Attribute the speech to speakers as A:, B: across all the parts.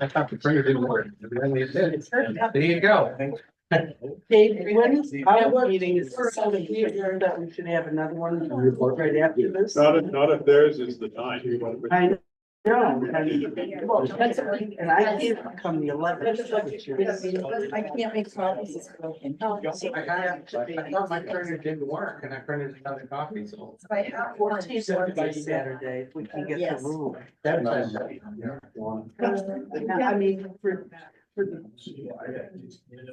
A: I thought the printer didn't work. Evidently it did. There you go.
B: Dave, when is
C: Our
B: our
C: meeting is-
B: first time we adjourned that we should have another one right after this?
D: Not if, not if theirs is the nine.
B: I know. And I can't come the eleventh.
E: I can't make promises.
C: Oh,
E: Um, So
A: I got, I thought my printer didn't work and I printed another copy, so.
E: I have one.
B: Fourteenth Wednesday, Saturday, if we can get the room.
A: That's
F: Nice.
B: I mean, for, for the,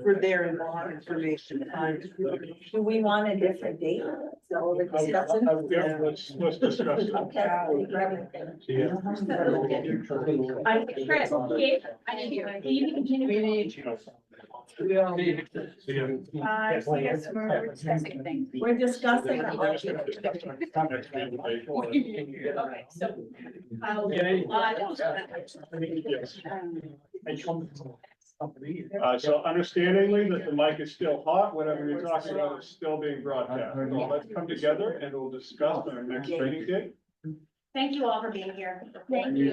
B: for their law information. time.
E: Do we want a different date? So we're discussing.
D: Yeah, let's, let's discuss it.
E: Okay. we grab it then.
D: Yeah.
C: I'm Chris, yeah, I didn't hear. Can you continue?
A: We need you.
C: Uh, so I guess we're discussing things.
E: We're discussing.
C: Okay, so. I'll-
D: Uh, so understandingly that the mic is still hot, whatever you're talking about is still being broadcast. So let's come together and we'll discuss our next training day.
C: Thank you all for being here.
E: Thank you.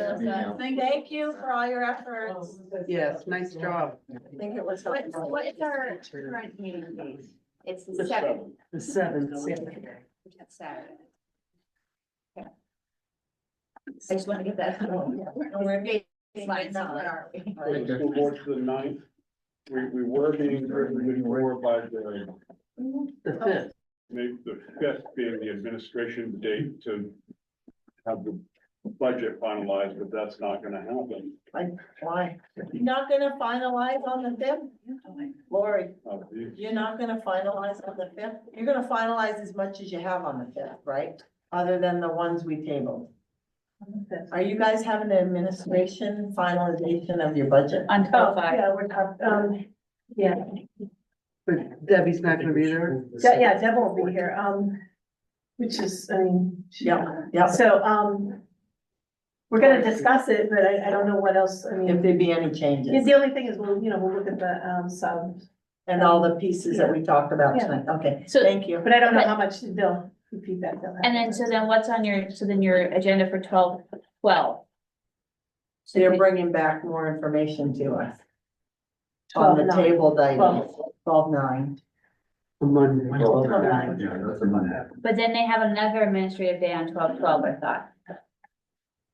E: Thank you for all your efforts.
B: Yes, nice job.
E: I think it was.
C: What's, what is our current meeting date? It's the
D: The
C: seventh,
D: seventh.
B: The seventh, Saturday.
C: that's Saturday.
E: I just want to get that. We're Slides on, are we?
D: For the school board to the ninth. We, we were being driven before by the
B: the fifth.
D: Maybe the fifth being the administration date to have the budget finalized, but that's not gonna happen.
E: Why? Not gonna finalize on the fifth? Lori,
D: Uh, the-
E: you're not gonna finalize on the fifth? You're gonna finalize as much as you have on the fifth, right? Other than the ones we tabled. Are you guys having an administration finalization of your budget?
C: Until five.
G: Yeah, we're tough. Um, yeah,
B: But Debbie's not gonna be there.
G: De- yeah, Deb won't be here, um, which is, I mean. she-
E: Yeah, yeah.
G: So, um, we're gonna discuss it, but I, I don't know what else, I
E: If
G: mean,
E: there be any
G: yeah,
E: changes
G: the only thing is, we'll, you know, we'll look at the, um, sub,
E: and all the pieces that we talked about tonight. Okay,
C: So-
E: thank you.
G: but I don't know how much they'll, the feedback they'll have.
C: And then, so then what's on your, so then your agenda for twelve, twelve?
E: So you're bringing back more information to us on
G: Twelve,
E: the
G: nine.
E: table, item,
G: Twelve.
E: twelve nine.
B: Monday.
F: Yeah, that's a Monday.
C: But then they have another administrative day on twelve, twelve, I thought.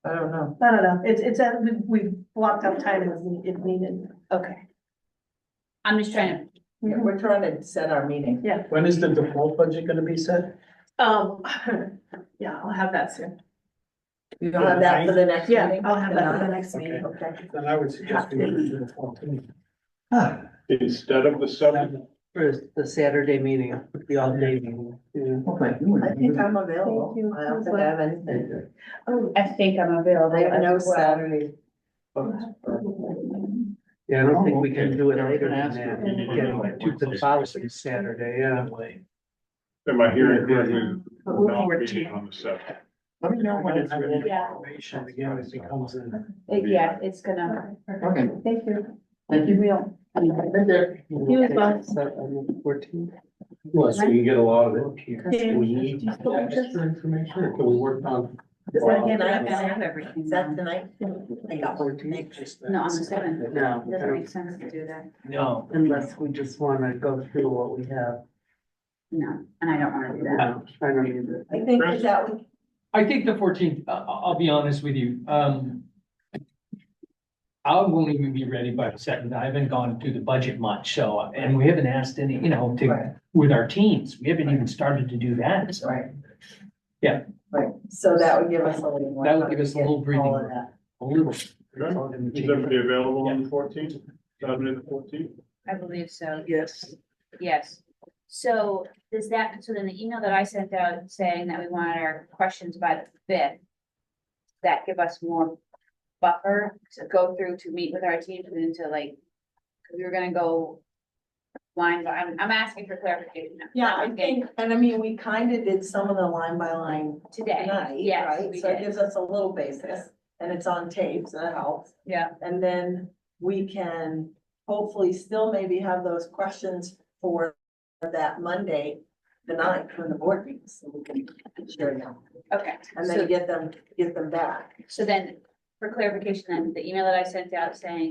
E: I don't know.
G: I don't know, it's, it's, uh, we, we blocked out time if we- if needed.
C: Okay. I'm just trying to
E: Yeah,
G: Mm-hmm.
E: We're trying to set our meeting.
F: When is the default budget gonna be set?
G: Um, yeah, I'll have that soon,
E: You'll have that for the next
G: yeah,
E: meeting?
G: I'll have that for the next meeting.
E: Okay.
F: Then I would suggest we do the fourteenth. Hopefully
D: Instead of the seventh,
B: For the Saturday meeting, the all day meeting. Yeah.
F: you.
E: I think I'm available.
G: Thank you.
E: I don't think I have anything.
G: Oh,
C: I think I'm available.
E: I have no
C: as well.
E: Saturday.
B: Yeah, I don't think we can do it later than
F: Ask her if you need to go
B: that.
F: like
B: Get to the
F: Wednesday.
B: following Saturday, yeah.
D: am I hearing correctly?
B: But we're
D: Not
B: fourteen.
D: meeting on the seventh.
F: Let me know when it's ready.
C: Yeah.
F: Information again, it becomes an.
C: It- Yeah, it's gonna.
F: Okay.
C: Thank you.
F: Thank you.
B: You as well. Fourteen.
A: Well, so you can get a lot of it.
G: Yeah.
A: We need extra information. Can we work on?
E: Is that
A: Well,
E: tonight?
C: everything.
E: Is that tonight? I got one.
C: No, on the seventh.
B: No,
C: It doesn't make sense to do that.
F: No.
B: unless we just wanna go through what we have.
C: No, and I don't wanna do that.
B: No, I don't either.
E: I think that that would,
H: I think the fourteenth, I, I'll be honest with you, um. I won't even be ready by the second, I haven't gone through the budget much, so, and we haven't asked any, you know,
E: Right.
H: to, with our teams, we haven't even started to do that, so.
E: right.
H: Yeah.
E: Right, so that would give us a little more.
H: That would
E: time
H: give us a
E: to get
H: little
E: all of
H: breathing
E: that.
H: A little.
D: Is everybody available on the fourteenth? Saturday the fourteenth?
C: I believe so,
B: Yes,
C: yes. So does that, so then the email that I sent out saying that we wanted our questions by the fifth. That give us more buffer to go through to meet with our teams and then to like, 'cause we were gonna go. Line, but I'm, I'm asking for clarification. now.
E: Yeah, I think, and I mean, we kind of did some of the line by line
C: Today,
E: tonight,
C: yes,
E: right?
C: we
E: So it
C: did.
E: gives us a little basis and it's on tape, so that helps.
C: Yeah.
E: And then we can hopefully still maybe have those questions for that Monday, the ninth, when the board meets, so we can share them.
C: Okay.
E: And
C: So-
E: then get them, get them back.
C: So then, for clarification, then the email that I sent out saying